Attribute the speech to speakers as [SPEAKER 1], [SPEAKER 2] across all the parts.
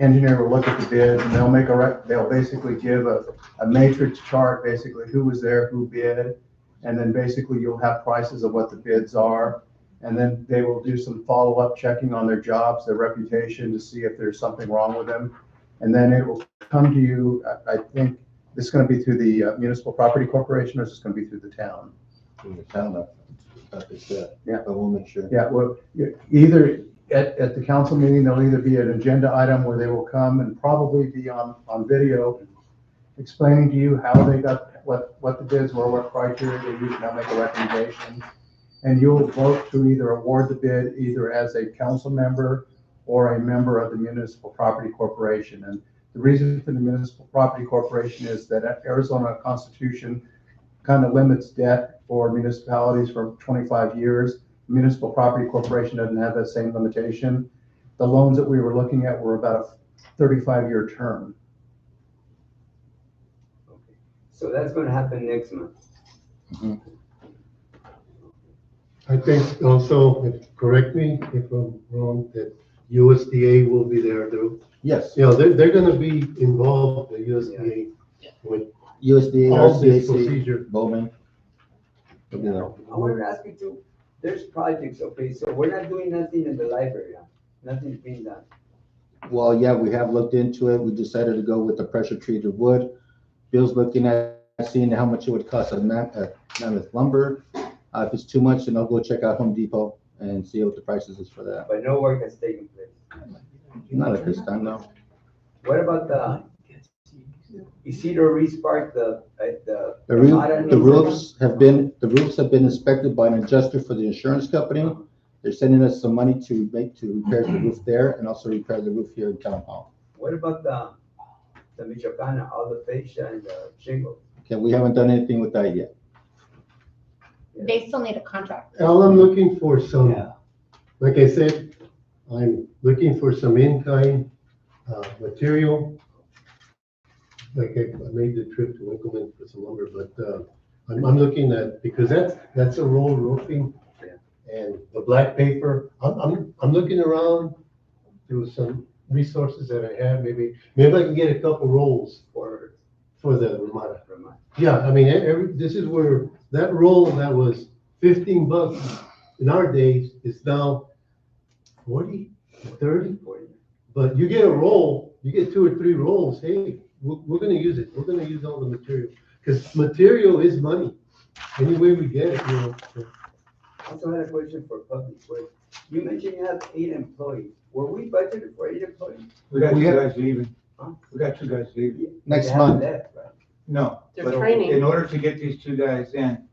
[SPEAKER 1] engineer will look at the bids and they'll make a, rec- they'll basically give a, a matrix chart, basically who was there, who bid. And then basically you'll have prices of what the bids are. And then they will do some follow-up checking on their jobs, their reputation to see if there's something wrong with them. And then it will come to you, I, I think, this is gonna be through the uh, municipal property corporation or is this gonna be through the town?
[SPEAKER 2] in the town up, up is that.
[SPEAKER 1] Yeah.
[SPEAKER 2] But we'll make sure.
[SPEAKER 1] Yeah, well, you- either at, at the council meeting, there'll either be an agenda item where they will come and probably be on, on video explaining to you how they got, what, what the bids were, what criteria they used, and I'll make a recommendation. And you'll vote to either award the bid either as a council member or a member of the municipal property corporation. And the reason for the municipal property corporation is that Arizona Constitution kind of limits debt for municipalities for twenty-five years municipal property corporation doesn't have that same limitation. The loans that we were looking at were about a thirty-five year term.
[SPEAKER 3] Okay. So that's gonna happen next month.
[SPEAKER 4] I think also, if- correct me if I'm wrong, that USDA will be there too.
[SPEAKER 2] Yes,
[SPEAKER 4] You know, they're, they're gonna be involved, the USDA, with
[SPEAKER 2] USDA,
[SPEAKER 4] all
[SPEAKER 2] RCAC,
[SPEAKER 4] this procedure.
[SPEAKER 2] Bowman. You know,
[SPEAKER 3] I wanted to ask you too, there's projects, okay, so we're not doing nothing in the library, huh? nothing's being done.
[SPEAKER 2] well, yeah, we have looked into it. We decided to go with the pressure treated wood. Bill's looking at, seeing how much it would cost a man, a mammoth lumber. Uh, if it's too much, then I'll go check out Home Depot and see what the prices is for that.
[SPEAKER 3] But no work has taken place.
[SPEAKER 2] Not at this time, no.
[SPEAKER 3] What about the Isidro Reese Park, the, uh, the?
[SPEAKER 2] The roof,
[SPEAKER 3] modern-
[SPEAKER 2] the roofs have been, the roofs have been inspected by an adjuster for the insurance company. They're sending us some money to make, to repair the roof there and also repair the roof here in town hall.
[SPEAKER 3] What about the, the Michoacana, all the fascia and the shingle?
[SPEAKER 2] Okay, we haven't done anything with that yet.
[SPEAKER 5] They still need a contract.
[SPEAKER 4] All I'm looking for some,
[SPEAKER 3] Yeah.
[SPEAKER 4] like I said, I'm looking for some in-kind, uh, material. Like I I made the trip to Winkleman for some lumber, but, uh, I'm, I'm looking at, because that's, that's a roll roofing.
[SPEAKER 3] Yeah.
[SPEAKER 4] And the black paper, I'm, I'm, I'm looking around, there was some resources that I have, maybe, maybe I can get a couple rolls
[SPEAKER 3] For,
[SPEAKER 4] for the Ramada.
[SPEAKER 3] for my,
[SPEAKER 4] Yeah, I mean, e- every, this is where, that roll that was fifteen bucks in our days is now forty, thirty.
[SPEAKER 3] for you.
[SPEAKER 4] But you get a roll, you get two or three rolls, hey, we're, we're gonna use it, we're gonna use all the material. Because material is money, any way we get it, you know. so.
[SPEAKER 3] Also had a question for public works. You mentioned you have eight employees. Were we budgeted for eight employees?
[SPEAKER 6] We got
[SPEAKER 2] We
[SPEAKER 6] two
[SPEAKER 2] have-
[SPEAKER 6] guys leaving.
[SPEAKER 3] Huh?
[SPEAKER 6] We got two guys leaving.
[SPEAKER 2] Next
[SPEAKER 3] They haven't
[SPEAKER 2] month.
[SPEAKER 3] left, right?
[SPEAKER 6] No.
[SPEAKER 5] They're
[SPEAKER 6] but
[SPEAKER 5] training.
[SPEAKER 6] In order to get these two guys in,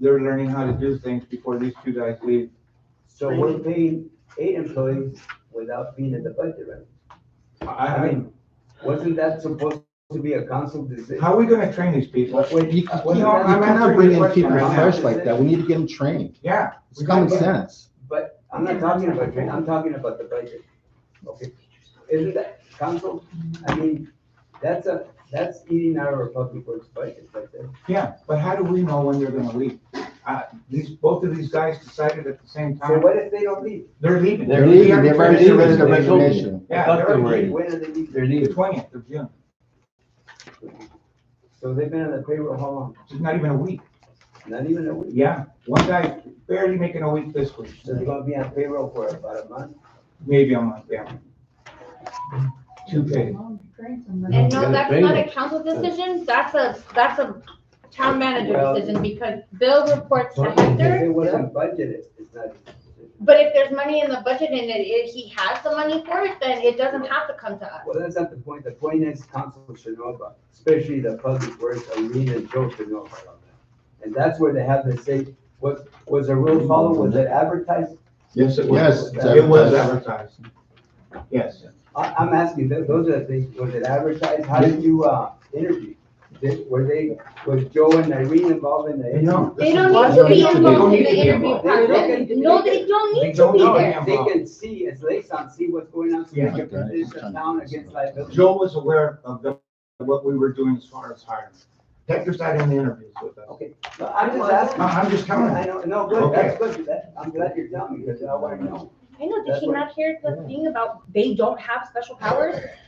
[SPEAKER 6] they're learning how to do things before these two guys leave.
[SPEAKER 3] So we're paying eight employees without being in the budget, right?
[SPEAKER 6] I,
[SPEAKER 3] I
[SPEAKER 6] I mean,
[SPEAKER 3] mean, wasn't that supposed to be a council decision?
[SPEAKER 6] how are we gonna train these people?
[SPEAKER 3] What- what-
[SPEAKER 2] You you
[SPEAKER 6] Well,
[SPEAKER 2] can't you
[SPEAKER 6] I'm
[SPEAKER 2] Uh, cannot
[SPEAKER 6] answering
[SPEAKER 2] bring
[SPEAKER 6] your
[SPEAKER 2] in
[SPEAKER 6] question
[SPEAKER 2] people
[SPEAKER 6] right now.
[SPEAKER 2] fresh like that. We need to get them trained.
[SPEAKER 6] Yeah.
[SPEAKER 2] It's common
[SPEAKER 3] But-
[SPEAKER 2] sense.
[SPEAKER 3] But I'm not talking about train, I'm talking about the budget. Okay, isn't that council, I mean, that's a, that's eating our public works budget right there.
[SPEAKER 6] Yeah, but how do we know when they're gonna leave? Uh, these, both of these guys decided at the same
[SPEAKER 3] So
[SPEAKER 6] time,
[SPEAKER 3] what if they don't leave?
[SPEAKER 6] they're leaving.
[SPEAKER 2] They're leaving, they've already
[SPEAKER 6] leaving.
[SPEAKER 2] submitted their
[SPEAKER 6] They told me.
[SPEAKER 2] resignation.
[SPEAKER 6] Yeah, they're already,
[SPEAKER 3] When do they leave?
[SPEAKER 6] they're leaving the twentieth of June.
[SPEAKER 3] So they've been on the payroll how long?
[SPEAKER 6] It's not even a week.
[SPEAKER 3] Not even a week.
[SPEAKER 6] Yeah, one guy barely making a week this week,
[SPEAKER 3] So they're gonna be on payroll for about a month.
[SPEAKER 6] maybe a month, yeah. Two days.
[SPEAKER 5] And no,
[SPEAKER 4] Yeah,
[SPEAKER 5] that's
[SPEAKER 4] they-
[SPEAKER 5] not a council decision, that's a, that's a town manager
[SPEAKER 3] Well-
[SPEAKER 5] decision, because Bill reports to
[SPEAKER 4] Well,
[SPEAKER 3] If
[SPEAKER 5] Hector.
[SPEAKER 3] it wasn't budgeted, it's not.
[SPEAKER 5] But if there's money in the budget and it, it- he has the money for it, then it doesn't have to come to us.
[SPEAKER 3] Well, that's not the point. The point is council should know about, especially the public works, Irene and Joe should know about that. And that's where they have to say, was, was the rule followed? Was it advertised?
[SPEAKER 2] Yes,
[SPEAKER 6] it was.
[SPEAKER 2] Yes. it's
[SPEAKER 6] It was
[SPEAKER 2] advertised.
[SPEAKER 6] advertised. Yes,
[SPEAKER 3] I, I'm asking, tho- those are the things, was it advertised? How did you, uh, interview? Did, were they, was Joe and Irene involved in the
[SPEAKER 6] they
[SPEAKER 3] interview?
[SPEAKER 6] know.
[SPEAKER 5] They don't
[SPEAKER 4] Why
[SPEAKER 5] need to
[SPEAKER 4] don't
[SPEAKER 5] be
[SPEAKER 4] you-
[SPEAKER 5] involved in
[SPEAKER 6] They don't
[SPEAKER 5] the
[SPEAKER 6] need to be
[SPEAKER 5] interview
[SPEAKER 6] involved.
[SPEAKER 5] process, no, they don't
[SPEAKER 6] They
[SPEAKER 5] need to
[SPEAKER 6] don't
[SPEAKER 5] be
[SPEAKER 6] know.
[SPEAKER 5] there.
[SPEAKER 3] They can see as liaison, see what's going on, so they
[SPEAKER 6] Yeah.
[SPEAKER 3] can position the town against liability.
[SPEAKER 6] Joe was aware of the, what we were doing as far as hiring. Hector's not in the interviews with us.
[SPEAKER 3] Okay, no, I'm just asking.
[SPEAKER 6] I- I'm just telling
[SPEAKER 3] I
[SPEAKER 6] you.
[SPEAKER 3] know, no, good, that's good. That- I'm glad you're telling me, because I wanna know.
[SPEAKER 5] I know, did
[SPEAKER 3] That's
[SPEAKER 5] she
[SPEAKER 3] what-
[SPEAKER 5] not hear the thing about they don't have special powers?